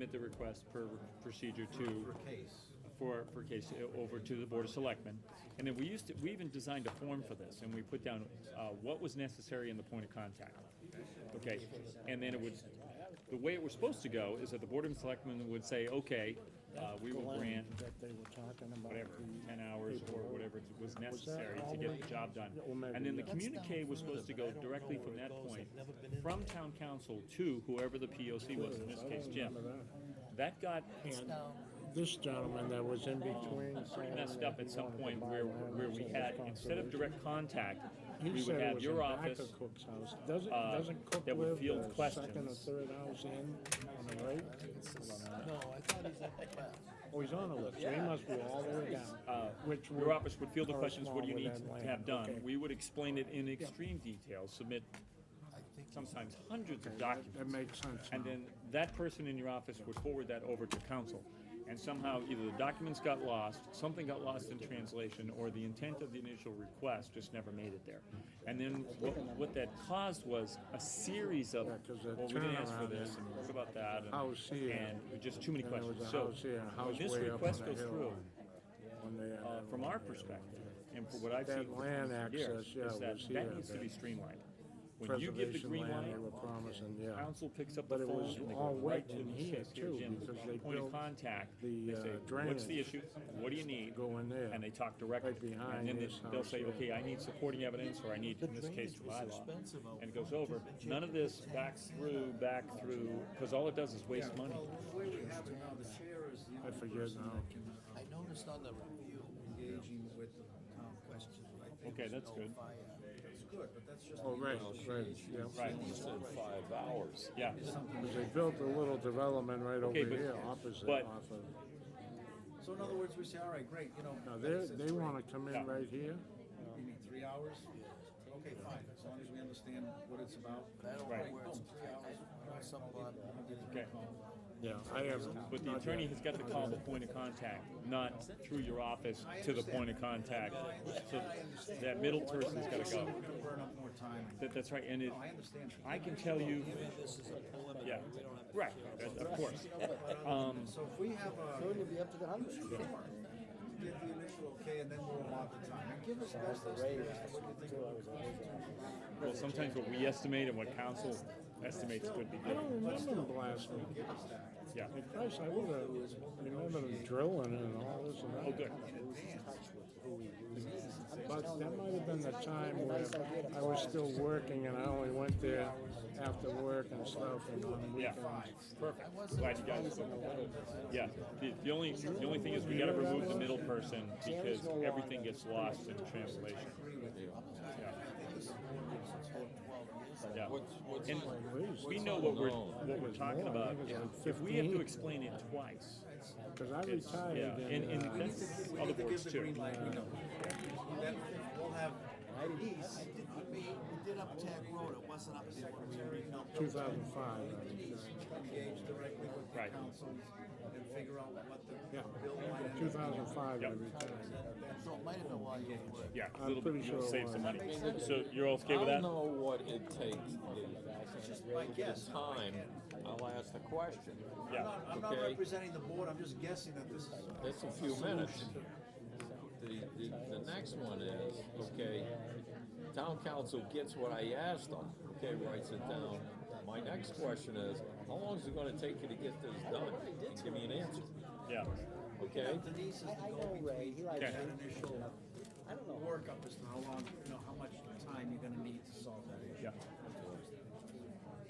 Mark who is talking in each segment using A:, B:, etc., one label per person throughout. A: submit the request per procedure
B: For
A: to,
B: case.
A: for, for case, uh, over to the Board of Selectmen. And then we used to, we even designed a form for this, and we put down uh, what was necessary in the point of contact. Okay, and then it would, the way it was supposed to go is that the Board of Selectmen would say, okay, uh, we will grant
C: That they were talking about.
A: whatever,
C: the-
A: ten hours or whatever was necessary to get the job done.
C: Well, maybe
A: And then the
C: not.
A: communique was supposed to go directly from that point, from town council to whoever the POC was, in
C: Mm-hmm.
A: this case Jim. That got
C: And this gentleman that was in between. saying
A: messed
C: that
A: up
C: he
A: at some
C: wanted to
A: point
C: buy
A: where,
C: land
A: where
C: and
A: we
C: said
A: had,
C: it's
A: instead of
C: conservation.
A: direct contact,
C: He
A: we would
C: said it
A: have
C: was
A: your
C: in back of
A: office,
C: Cook's house. Doesn't,
A: uh,
C: doesn't Cook
A: that would
C: live
A: field
C: the second or
A: questions.
C: third house in on the right?
D: No, I thought he's at the left.
C: Oh, he's on the list, so he must be all the way down. Which
A: Uh, your office would field the
C: correspond
A: questions, what do you
C: with
A: need
C: that
A: to
C: land.
A: have done?
C: Okay.
A: We would explain it in extreme detail, submit
D: I think he's
A: sometimes hundreds of
C: That that
A: documents.
C: makes sense
A: And
C: now.
A: then that person in your office would forward that over to council. And somehow either the documents got lost, something got lost in translation, or the intent of the initial request just never made it there. And then what, what that caused was a series of,
C: Yeah, 'cause the
A: well, we didn't ask for
C: turnaround
A: this,
C: and
A: and what about that? and-
C: house here,
A: And just too many
C: and there was a
A: questions. So
C: house here, a
A: when
C: house
A: this
C: way up on
A: request
C: the
A: goes
C: hill.
A: through,
C: When they had
A: uh,
C: that
A: from
C: one
A: our
C: there.
A: perspective, and from what I've
C: That
A: seen for
C: land access,
A: years,
C: yeah,
A: is that
C: was here,
A: that needs to
C: that
A: be streamlined. When you give the
C: preservation
A: green
C: land They
A: light,
C: were promising, yeah.
A: council picks up
C: But
A: the
C: it
A: phone
C: was
A: and they
C: all
A: go right
C: wet
A: to
C: in
A: the
C: here,
A: ship, here,
C: too,
A: Jim,
C: because they
A: point of
C: built
A: contact,
C: the,
A: they
C: uh,
A: say, what's the
C: drainage
A: issue, what do you need?
C: go in there,
A: And they talk directly.
C: right behind
A: And then
C: this
A: they- they'll
C: house
A: say,
C: here.
A: okay, I need supporting evidence, or I need, in this case,
D: drainage was expensive
A: bylaw.
D: out
A: And it goes over, none of this back through, back through, because all it does is waste money.
B: Well, the way we have it now, the chair is the
C: I
B: only
C: forget
B: person
C: now.
B: that can uh,
D: I noticed on the review,
B: engaging with the town questions. I think
A: Okay, that's good.
D: fire,
B: It's good, but that's just.
C: Oh, right, right, yeah.
A: Right,
E: five hours.
A: yeah.
C: Because they built a little development right over
A: Okay, but-
C: here, opposite
A: but-
C: off of,
B: So in other words, we say, all right, great, you know.
C: now they,
B: it's- it's
C: they
B: great.
C: wanna come in
A: Yeah.
C: right here?
B: You mean three hours? Okay, fine, as long as we understand what it's about.
D: but I don't
A: Right.
D: know where it's, I, I know some lot,
A: Okay,
C: Yeah, I haven't.
A: but the
C: not
A: attorney
C: yet.
A: has got to call the point of contact, not through your office to the point of contact. So that middle person's got to
B: We're
A: go.
B: gonna burn up more time.
A: That, that's right, and it,
B: No, I understand.
A: I can tell you,
D: this is a
A: yeah,
D: preliminary, we don't have.
A: right, of course. Um,
B: So if we have a.
C: Soon you'll be up to the hundred.
B: Sure. Give the initial okay, and then we'll allot the time. And give us best estimates of what you think it would cost.
A: Well, sometimes what we estimate and what council estimates could be
C: I don't
A: different.
C: remember them last week.
B: Give us that.
A: Yeah.
C: At first, I would've remembered them drilling and all this and that.
A: Oh, good.
C: But that might have been the time where I was still working and I only went there after work and stuff and on
A: Yeah.
C: weekends.
A: Perfect. Glad you guys. Yeah. The, the only the only thing is we got to remove the middle person because everything gets lost in translation. Yeah.
E: What's, what's,
A: And
C: Please,
A: we know what we're what we're
C: It's
A: talking
C: more. I
A: about.
C: think it's like
A: If we have to
C: 15.
A: explain it twice,
C: Cause I
A: it's yeah,
C: retired
A: and,
C: in, uh,
A: and that's
B: We
A: other
B: need to give
A: boards
B: the green
A: too.
B: light, we know. Then we'll have ease.
D: I did, we, we did up Tag Road, it wasn't up there when we rebuilt.
C: 2005.
B: engage directly with the
A: Right.
B: councils and figure out what the
C: Yeah,
B: bill might end up.
C: 2005 I
A: Yep.
C: retired.
D: So it might have been while you were working.
A: Yeah, a
C: I'm
A: little
C: pretty
A: bit. You'll
C: sure it
A: save some
C: was.
A: money. So you're all okay with
E: I'll
A: that?
E: know what it takes, the,
B: My guess.
E: the time, I'll ask the question.
B: I'm
A: Yeah.
B: not, I'm not
E: Okay.
B: representing the board, I'm just guessing that this is.
E: That's a few minutes. The, the, the next one is, okay, town council gets what I asked them, okay, writes it down. My next question is, how long is it gonna take you to get this done? And Give me an answer,
A: Yeah.
E: okay?
B: Denise is the go-between, that initial workup as to how long, you know, how much time you're gonna need to solve that issue.
A: Yeah.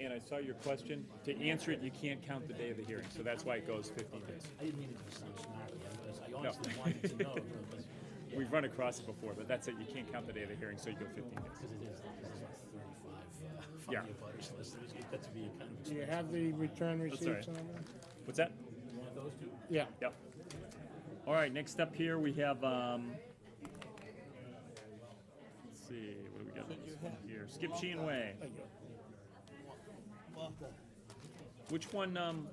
A: And I saw your question. To answer it, you can't count the day of the hearing, so that's why it goes 15 days.
F: I didn't mean it to sound snarky, I was- I honestly wanted to know, because
A: We've run across it before, but that's it. You can't count the day of the hearing, so you go 15 days.
F: because it is, this is like thirty-five, uh, from
A: Yeah.
F: your butters list, it's- it gets to be a kind of
C: Do you
F: expensive.
C: have the return
A: That's all
C: receipts on
A: right.
C: that?
A: What's that?
F: One of those two?
C: Yeah.
A: Yep. All right, next up here, we have, um, let's see, what do we got on this one here? Skip Sheehan Way.
D: Well, the-
A: Which one, um,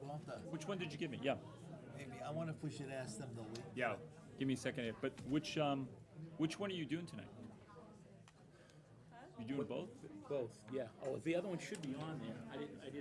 D: well, the-
A: which one did you give me? Yeah,
D: Maybe, I wonder if we should ask them to leave.
A: yeah. Give me a second here. But which, um, which one are you doing tonight?
G: You doing both?
A: Both, yeah. Oh, the other one should be on there. I didn't, I didn't